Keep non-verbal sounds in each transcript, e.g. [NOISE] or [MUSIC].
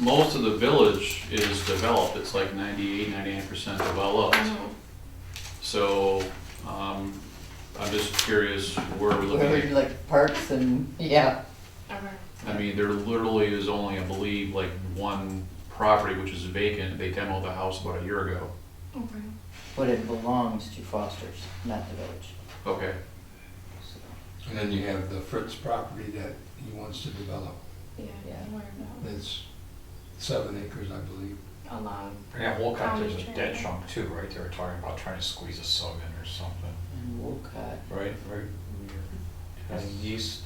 most of the village is developed, it's like 98, 99 percent developed. Mm-hmm. So, um, I'm just curious where we look Where we at, like parks and, yeah, Okay. I mean, there literally is only, I believe, like one property which is vacant, they demoed the house about a year ago. Okay. but it belongs to Foster's, not the village. Okay, So, And then you have the Fritz property that he wants to develop. Yeah. Yeah. Where about It's seven acres, I believe. along? Yeah, Wolcott, County there's a dead Trail. chunk too, right? They were talking about trying to squeeze Oh, a sub in or something. And Wolcott, Right, right. Yes. And east,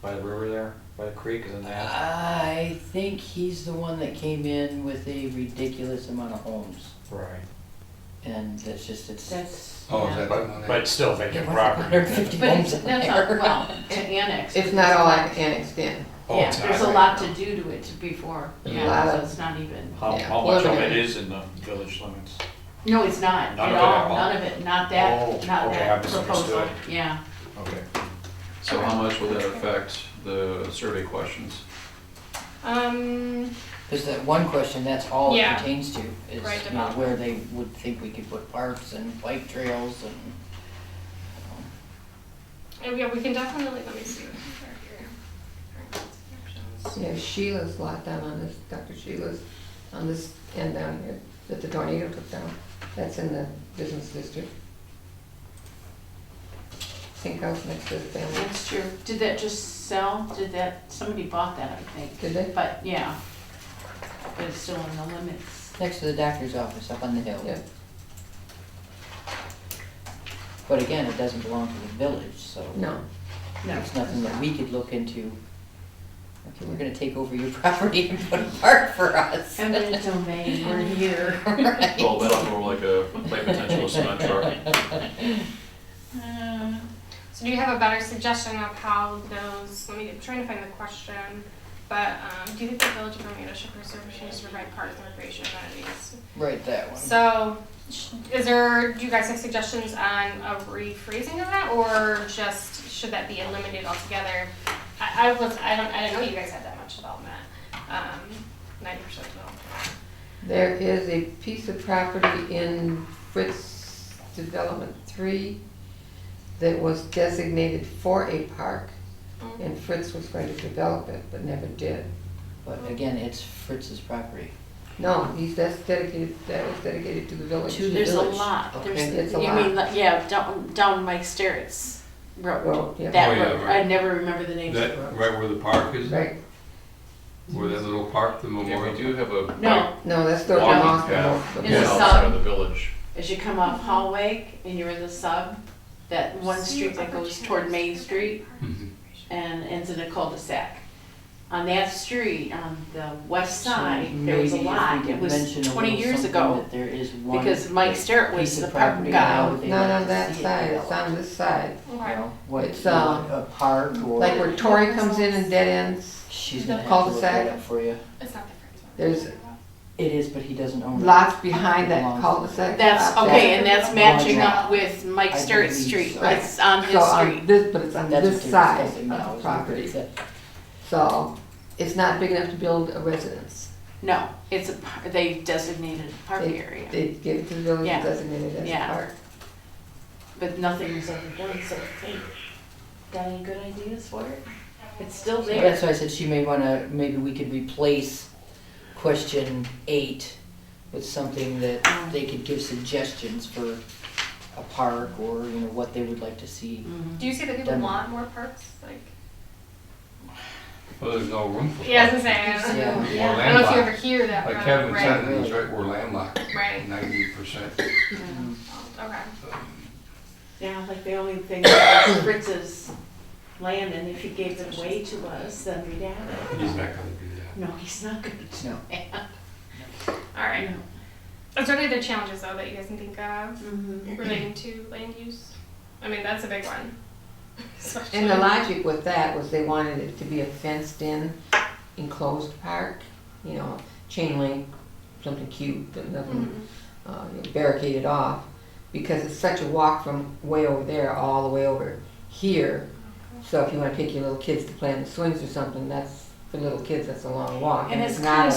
by the river there, by the creek, isn't that? I think he's the one that came in with a ridiculous amount of homes, Right. and that's just, it's. That's. Oh, is yeah. that the one But, but that? still It vacant was a hundred property. and fifty But homes it's, in that's not, there. [LAUGHS] well, an annex. It's not all annexed in. Oh, Yeah, it's there's a not. lot to do to it to before, Lot yeah, so of- it's not even, How, Yeah. how much of Well, it yeah. is in the village limits? no, it's not None at of it at all, all. none of it, not that, Oh, not okay, I that misunderstood. proposal, yeah. Okay. so how much will that affect the survey questions? Um, There's that one question, that's all it Yeah. pertains to, is, Right, you know, about- where they would think we could put parks and bike trails and. And oh, yeah, we can definitely, let me see. what we have here. Options. Yeah, Sheila's lot down on this, Dr. Sheila's on this end down here that the tornado took down. That's in the business district. Sink house next to the family, that's true, did that just sell, did that, somebody bought that, I think, did they? but, yeah. But it's still in the limits. Next to the doctor's office up on the hill. Yeah. But again, it doesn't belong to the village, so. No. No. It's nothing that we could look into. Okay, we're gonna take over your [LAUGHS] property and put a park for us. Eminent domain, we're [LAUGHS] here. [LAUGHS] Right. Well, that's more like a, like [LAUGHS] potential cement truck. Uh, So do you have a better suggestion of how those, let me, I'm trying to find the question, but, um, do you think the village of Romeo should preserve and change to provide parks and recreation amenities? [LAUGHS] Right, that one. So, sh- is there, do you guys have suggestions on a rephrasing of that, or just, should that be eliminated altogether? I, I was, I don't, I didn't know you guys had that much development, um, ninety percent development. There is a piece of property in Fritz Development Three that was designated for a park, and Fritz was going to develop it, but never did. But again, it's Fritz's property. No, he's, that's dedicated, that was dedicated to the village. To the There's a village. lot, Okay. there's, It's you a mean, like, yeah, down, down Mike Sterrett's road, Well, yeah, that Oh, yeah, road, I right. never remember the names of the That, roads. right where the park is, right, where that little park, the Yeah, memorial. we do have a. No, no, that's the Walking Moss path. Is it Yeah, Memorial. outside sub? of the village. as you come up Hallway and you're in the sub, that one street that goes toward Main Street Mhm. and ends in a cul-de-sac. On that street, on the west So side, there was maybe a if we lot, could it was mention a twenty little years something ago, that There is one. because Mike Sterrett was piece the of park property now guy. they Not want on to that see it side, it's developed. on this side, You Okay. know, what, It's, uh, a park or. like where Tori comes in and dead ends, She's gonna have to look cul-de-sac. that up for you. It's not the first one. There's- It is, but he doesn't own it. lots behind that cul-de-sac. That's, Uh, okay, and that's matching Yeah. up with Mike I Sterrett's believe street, so. Right. it's on So his on street. this, but it's on That's this what they're side of discussing now, the is where property, it's at. so it's not big enough to build a residence. No, it's a, par- they designated a park They- area. They give it to the village Yeah. designated as a Yeah. park. But nothing was ever done, so hey, got any good ideas for it? It's still there. That's why I said she may wanna, maybe we could replace question eight with something Mm. that they could give suggestions for a park or, you know, what they would like to see. Mhm. Do you see that people Done. want more parks? Like, Well, Oh, there's no room for. yeah, I was parks. gonna say, I don't, Yeah. We're Yeah. I don't know if you ever landlocked. hear that. Like from- Kevin right? said, he's right, we're landlocked, Right. ninety percent. Okay. Yeah, like the only [COUGHS] thing is Fritz's land, and if he gave it away to us, then we'd have it. He's not gonna do that. No, he's not gonna do No. that. All right. Is there any other challenges though that you guys can think of Mhm. relating to land use? I mean, that's a big one. Especially- And the logic with that was they wanted it to be a fenced-in enclosed park, you know, chain link, something cute, but nothing Mhm. uh, you know, barricaded off, because it's such a walk from way over there all the way over here. So if you wanna take your little kids to play on the swings or something, that's for little kids, that's a long walk. And it's not kinda a-